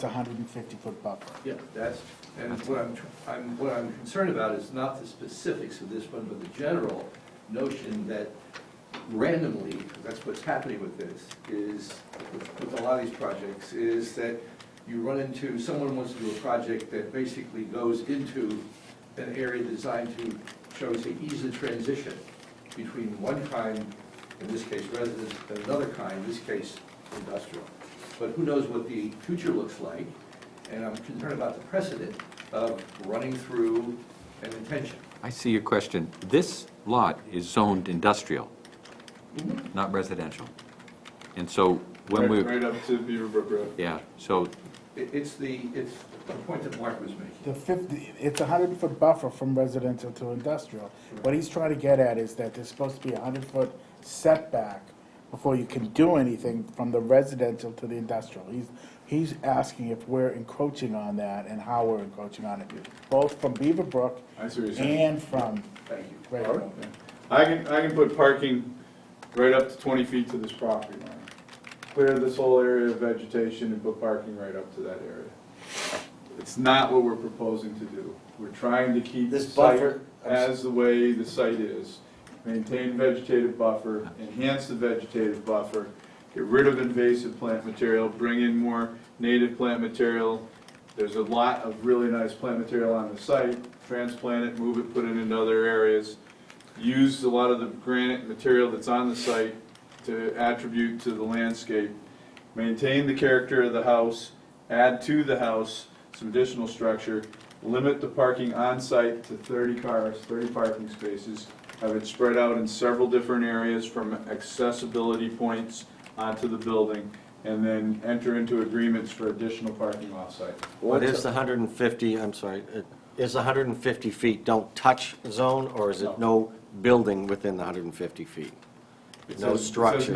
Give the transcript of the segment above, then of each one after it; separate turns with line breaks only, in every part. It's a hundred and fifty foot buffer.
Yeah, that's, and what I'm, tr- I'm, what I'm concerned about is not the specifics of this one, but the general notion that randomly, that's what's happening with this, is, with with a lot of these projects, is that you run into, someone wants to do a project that basically goes into an area designed to, shall we say, ease the transition between one kind, in this case residence, and another kind, in this case industrial. But who knows what the future looks like, and I'm concerned about the precedent of running through an intention.
I see your question. This lot is zoned industrial, not residential. And so when
Right-
we,
Right up to Beaverbrook Road.
yeah, so
It- It's the, it's the point that Mark was making.
The fifty, it's a hundred foot buffer from residential to industrial. What he's trying to get at is that there's supposed to be a hundred foot setback before you can do anything from the residential to the industrial. He's, he's asking if we're encroaching on that and how we're encroaching on it, both from Beaverbrook
I see what you're saying.
and from
Thank you.
Red
All right,
Road.
yeah. I can, I can put parking right up to twenty feet to this property line. Clear this whole area of vegetation and put parking right up to that area. It's not what we're proposing to do. We're trying to keep the
This
site
buffer-
as the way the site is. Maintain vegetative buffer, enhance the vegetative buffer, get rid of invasive plant material, bring in more native plant material. There's a lot of really nice plant material on the site, transplant it, move it, put it into other areas. Use a lot of the granite material that's on the site to attribute to the landscape. Maintain the character of the house, add to the house some additional structure, limit the parking on site to thirty cars, thirty parking spaces, have it spread out in several different areas from accessibility points onto the building, and then enter into agreements for additional parking off-site.
What is the hundred and fifty, I'm sorry, it- is the hundred and fifty feet don't touch zone, or is it no building within the hundred and fity feet?
It says- It
No
says no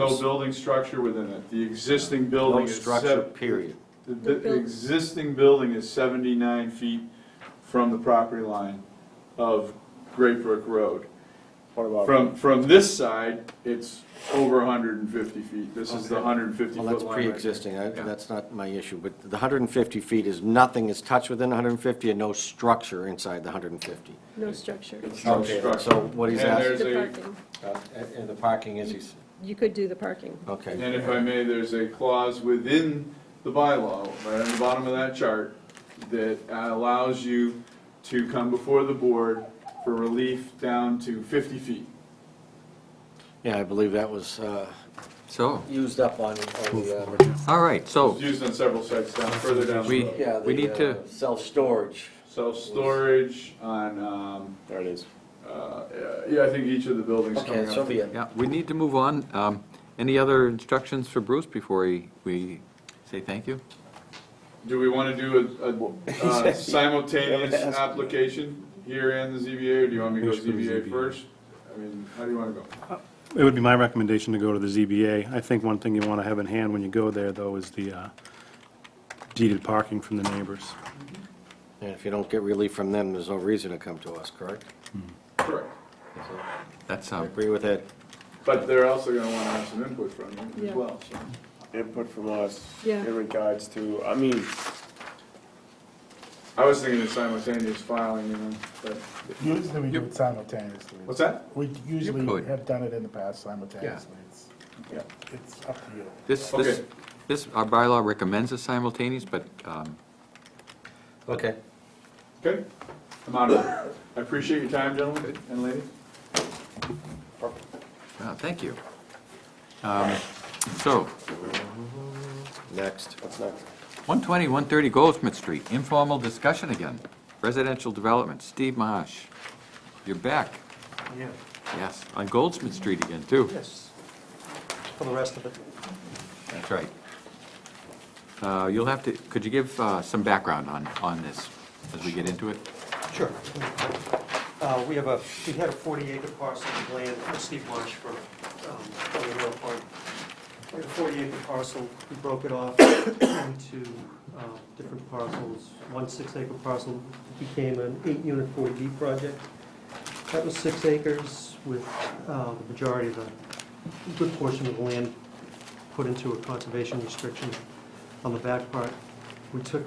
structures.
building structure within it. The existing
No
building is
structure,
seven,
period.
the- the existing building is seventy-nine feet from the property line of Great Brook Road. From, from this side, it's over hundred and fifty feet. This is the hundred and fifty foot
Well,
line.
that's
right here.
pre-existing, I-
Yeah.
that's not my issue, but the hundred and fifty feet is nothing is touched within hundred and fifty, and no structure inside the hundred and fifty.
No structure.
It's no structure.
So what he's
And
asking,
there's
The
a-
parking,
uh, and the parking is, he's,
you could do the parking.
okay.
And if I may, there's a clause within the bylaw, right on the bottom of that chart, that allows you to come before the board for relief down to fifty feet.
Yeah, I believe that was uh,
So,
used up on, on the, uh,
all right, so
It's used on several sites down, further down the
We-
road.
yeah,
We need
the uh,
to-
self-storage.
Self-storage on, um,
There it is.
uh, yeah, I think each of the buildings
Okay,
coming
so
up.
be it.
Yeah, we need to move on. Um, Any other instructions for Bruce before we, we say thank you?
Do we wanna do a- a, uh, simultaneous application here and the ZBA, or do you want me to go ZBA first? I mean, how do you wanna go?
It would be my recommendation to go to the ZBA. I think one thing you want to have in hand when you go there, though, is the uh, deeded parking from the neighbors.
And if you don't get relief from them, there's no reason to come to us, correct?
Correct.
That's,
I
um,
agree with Ed.
But they're also gonna wanna have some input from you
Yeah.
as well, so.
Input from us
Yeah. in
regards to, I mean.
I was thinking of simultaneous filing, you know, but,
Usually we do it simultaneously.
what's that?
We usually
could.
have done it in the past simultaneously. It's,
Yeah.
it's up to you.
this, this,
Okay.
this, our bylaw recommends a simultaneous, but um,
Okay.
Okay, I'm out of here. I appreciate your time, gentlemen and ladies.
uh, thank you. Um, So,
Next. What's next?
120, 130 Goldsmith Street, informal discussion again. Residential development, Steve Marsh, you're back.
Yeah,
Yes, on Goldsmith Street again, too.
yes, for the rest of it.
That's right. Uh, You'll have to, could you give uh, some background on, on this as we get into it?
Sure. Uh, we have a, we had a forty acre parcel of land, uh, Steve Marsh from, um, from the rail park. We had a forty acre parcel, we broke it off into, um, different parcels. One six acre parcel became an eight unit forty B project. That was six acres with, uh, the majority of the, a good portion of the land put into a conservation restriction on the back part. we took